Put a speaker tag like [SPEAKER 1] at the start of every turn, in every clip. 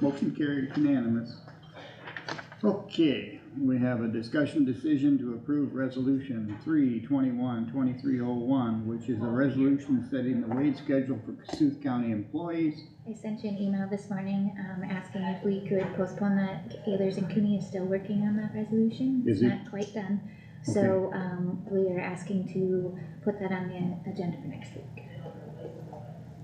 [SPEAKER 1] Motion carried unanimous. Okay, we have a discussion decision to approve resolution three twenty-one twenty-three oh one, which is a resolution setting the wage schedule for Cassuth County employees.
[SPEAKER 2] I sent you an email this morning, um, asking if we could postpone that, Ayers and Cooney is still working on that resolution.
[SPEAKER 1] Is
[SPEAKER 2] It's
[SPEAKER 1] he?
[SPEAKER 2] Not quite done, so, um, we are asking to put that on the agenda for next week.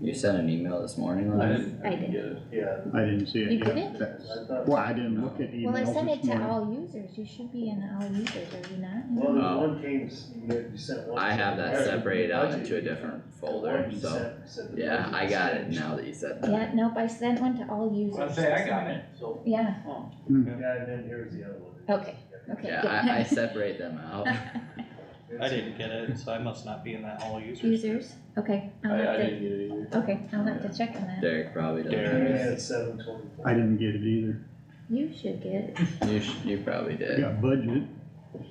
[SPEAKER 3] You sent an email this morning,
[SPEAKER 2] I
[SPEAKER 3] Lon?
[SPEAKER 2] didn't- I didn't
[SPEAKER 4] get it.
[SPEAKER 5] Yeah,
[SPEAKER 1] I didn't see it
[SPEAKER 2] You
[SPEAKER 1] yet.
[SPEAKER 2] didn't?
[SPEAKER 1] That's-
[SPEAKER 5] I thought,
[SPEAKER 1] Well,
[SPEAKER 5] well,
[SPEAKER 1] I didn't look at emails
[SPEAKER 2] Well, I
[SPEAKER 1] this
[SPEAKER 2] sent it to
[SPEAKER 1] morning.
[SPEAKER 2] all users, you should be in all users, are you not?
[SPEAKER 5] there's
[SPEAKER 3] Oh.
[SPEAKER 5] one came, you sent one.
[SPEAKER 3] I have that
[SPEAKER 5] Right.
[SPEAKER 3] separated out
[SPEAKER 5] Budget.
[SPEAKER 3] into a different folder,
[SPEAKER 5] One you
[SPEAKER 3] so,
[SPEAKER 5] sent said the
[SPEAKER 3] yeah,
[SPEAKER 5] budget
[SPEAKER 3] I
[SPEAKER 5] was
[SPEAKER 3] got it
[SPEAKER 5] changed.
[SPEAKER 3] now that you said that.
[SPEAKER 2] Yeah, nope, I sent one to all users.
[SPEAKER 4] I say I
[SPEAKER 2] this
[SPEAKER 4] got
[SPEAKER 2] morning.
[SPEAKER 4] it, so.
[SPEAKER 2] Yeah,
[SPEAKER 5] Yeah, and then here's the other one.
[SPEAKER 2] Okay. okay.
[SPEAKER 3] Yeah,
[SPEAKER 2] good.
[SPEAKER 3] I, I separate them out.
[SPEAKER 6] I didn't get it, so I must not be in that all users.
[SPEAKER 2] Users, okay, I'll
[SPEAKER 4] I, I
[SPEAKER 2] have to,
[SPEAKER 4] didn't get it either.
[SPEAKER 2] okay, I'll have to check on that.
[SPEAKER 3] Derek probably
[SPEAKER 5] And
[SPEAKER 6] Derek.
[SPEAKER 3] doesn't.
[SPEAKER 5] had seven twenty-four.
[SPEAKER 1] I didn't get it either.
[SPEAKER 2] You should get it
[SPEAKER 3] You, sh- you probably did.
[SPEAKER 1] Got budget.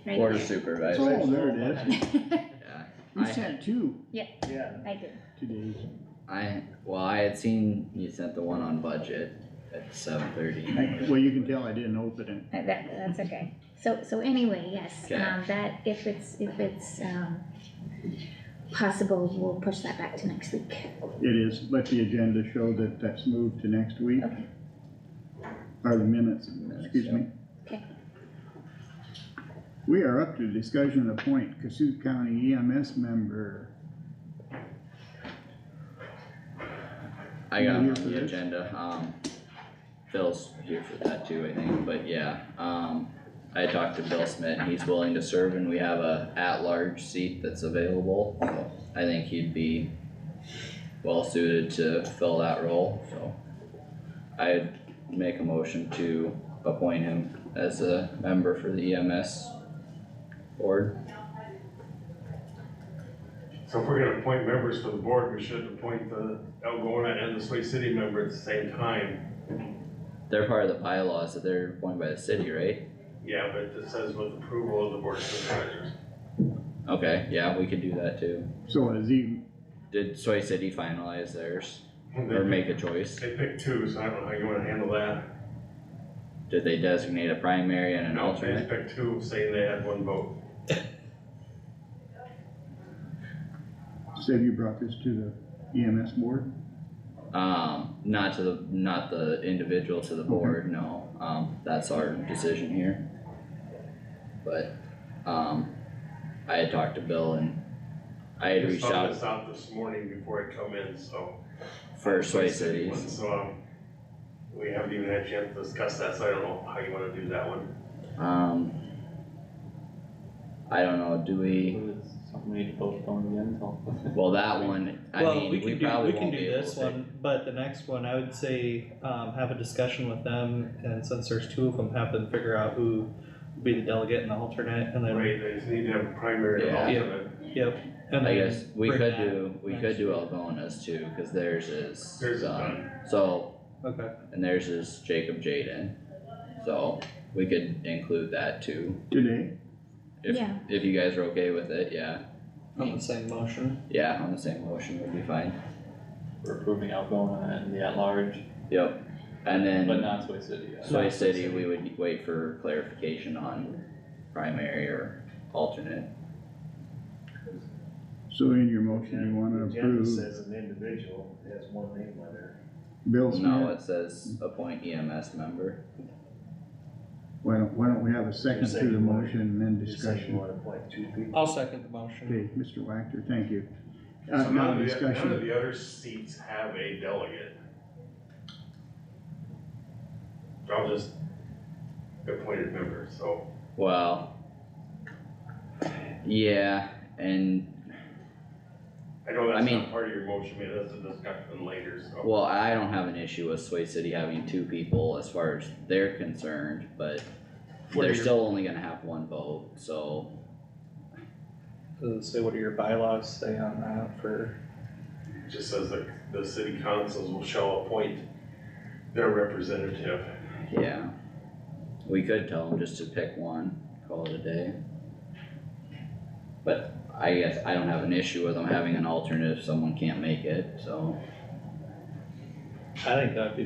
[SPEAKER 2] right
[SPEAKER 3] Board of
[SPEAKER 2] there.
[SPEAKER 3] Supervisors,
[SPEAKER 1] Oh, there it is.
[SPEAKER 3] yeah.
[SPEAKER 1] You
[SPEAKER 3] I-
[SPEAKER 1] sent two
[SPEAKER 5] Yeah,
[SPEAKER 2] I did,
[SPEAKER 1] today.
[SPEAKER 3] I, well, I had seen you sent the one on budget at seven
[SPEAKER 1] I-
[SPEAKER 3] thirty.
[SPEAKER 1] Well, you can tell I didn't open it.
[SPEAKER 2] Uh, that, that's okay. So, so anyway, yes,
[SPEAKER 3] Okay.
[SPEAKER 2] um, that, if it's, if it's, um, possible, we'll push that back to next week.
[SPEAKER 1] It is, let the agenda show that that's moved to next week.
[SPEAKER 2] Okay.
[SPEAKER 1] Or the minutes, excuse me.
[SPEAKER 2] Okay.
[SPEAKER 1] We are up to discussion to appoint Cassuth County EMS member.
[SPEAKER 3] I got
[SPEAKER 1] You
[SPEAKER 3] them
[SPEAKER 1] here
[SPEAKER 3] on
[SPEAKER 1] for
[SPEAKER 3] the
[SPEAKER 1] this?
[SPEAKER 3] agenda, um, Phil's here for that too, I think, but yeah, um, I talked to Bill Smith, and he's willing to serve and we have a at-large seat that's available, so I think he'd be well suited to fill that role, so I'd make a motion to appoint him as a member for the EMS board.
[SPEAKER 7] So if we're gonna appoint members for the board, we should appoint the Algona and the Sway City member at the same time.
[SPEAKER 3] They're part of the bylaws that they're appointed by the city, right?
[SPEAKER 7] Yeah, but it says with approval of the board of supervisors.
[SPEAKER 3] Okay, yeah, we could do that too.
[SPEAKER 1] So is he,
[SPEAKER 3] Did Soy City finalize theirs or make a choice?
[SPEAKER 7] They picked two, so I don't know how you wanna handle that.
[SPEAKER 3] Did they designate a primary and an
[SPEAKER 7] They
[SPEAKER 3] alternate?
[SPEAKER 7] just picked two, saying they had one vote.
[SPEAKER 1] said you brought this to the EMS board?
[SPEAKER 3] Um, not to the, not the individual to the board, no, um, that's our decision here. But, um, I had talked to Bill and I had reached
[SPEAKER 7] Just found
[SPEAKER 3] out
[SPEAKER 7] this out this morning before I come in, so.
[SPEAKER 3] for Soy
[SPEAKER 7] City one,
[SPEAKER 3] Cities.
[SPEAKER 7] So, um, we haven't even had a chance to discuss that, so I don't know how you wanna do that one.
[SPEAKER 3] Um, I don't know, do we,
[SPEAKER 4] Something we need to postpone again till.
[SPEAKER 3] well, that one, I
[SPEAKER 6] Well,
[SPEAKER 3] mean,
[SPEAKER 6] we
[SPEAKER 3] we
[SPEAKER 6] can do,
[SPEAKER 3] probably
[SPEAKER 6] we can
[SPEAKER 3] won't be
[SPEAKER 6] do
[SPEAKER 3] able
[SPEAKER 6] this
[SPEAKER 3] to.
[SPEAKER 6] one, but the next one, I would say, um, have a discussion with them, and since there's two of them, have them figure out who will be the delegate and the alternate, and then,
[SPEAKER 7] Right, they just need to have a primary and
[SPEAKER 3] Yeah.
[SPEAKER 6] Yeah.
[SPEAKER 7] alternate.
[SPEAKER 6] yep. and
[SPEAKER 3] I
[SPEAKER 6] then
[SPEAKER 3] guess, we
[SPEAKER 6] bring
[SPEAKER 3] could
[SPEAKER 6] that
[SPEAKER 3] do, we could
[SPEAKER 6] next
[SPEAKER 3] do
[SPEAKER 6] week.
[SPEAKER 3] Algona's too, cause theirs is
[SPEAKER 7] There's a
[SPEAKER 3] done.
[SPEAKER 7] done.
[SPEAKER 3] So
[SPEAKER 6] Okay,
[SPEAKER 3] And theirs is Jacob Jaden, so we could include that too,
[SPEAKER 1] Today?
[SPEAKER 3] if,
[SPEAKER 2] Yeah.
[SPEAKER 3] if you guys are okay with it, yeah,
[SPEAKER 6] on the same motion,
[SPEAKER 3] yeah, on the same motion would be fine,
[SPEAKER 4] We're approving Algona and the at-large,
[SPEAKER 3] yep. And
[SPEAKER 4] but
[SPEAKER 3] then
[SPEAKER 4] not Soy City. uh,
[SPEAKER 3] Soy City, we would wait for clarification on primary or alternate,
[SPEAKER 1] So in your motion, you wanna
[SPEAKER 5] The agenda
[SPEAKER 1] approve
[SPEAKER 5] says an individual has one name on there.
[SPEAKER 1] Bill
[SPEAKER 3] no,
[SPEAKER 1] Smith?
[SPEAKER 3] it says appoint EMS member,
[SPEAKER 1] Why don't, why don't we have a second to the
[SPEAKER 5] Second one.
[SPEAKER 1] motion and then
[SPEAKER 5] You said you
[SPEAKER 1] discussion?
[SPEAKER 5] wanna appoint two people.
[SPEAKER 6] I'll second the motion.
[SPEAKER 1] Okay, Mr. Wactor, thank you. Uh,
[SPEAKER 7] So
[SPEAKER 1] now
[SPEAKER 7] none of the, none of
[SPEAKER 1] discussion,
[SPEAKER 7] the other seats have a delegate. They're all just appointed members, so
[SPEAKER 3] well. Yeah, and,
[SPEAKER 7] I know
[SPEAKER 3] I
[SPEAKER 7] that's
[SPEAKER 3] mean-
[SPEAKER 7] not part of your motion, maybe that's a discussion later, so.
[SPEAKER 3] well, I don't have an issue with Soy City having two people as far as they're concerned, but
[SPEAKER 6] What are
[SPEAKER 3] they're
[SPEAKER 6] your-
[SPEAKER 3] still only gonna have one vote, so
[SPEAKER 6] Does it say what do your bylaws say on that for,
[SPEAKER 7] It Just says that the city councils will shall appoint their representative.
[SPEAKER 3] Yeah. We could tell them just to pick one, call it a day. But I guess I don't have an issue with them having an alternate if someone can't make it, so.
[SPEAKER 6] I think that'd be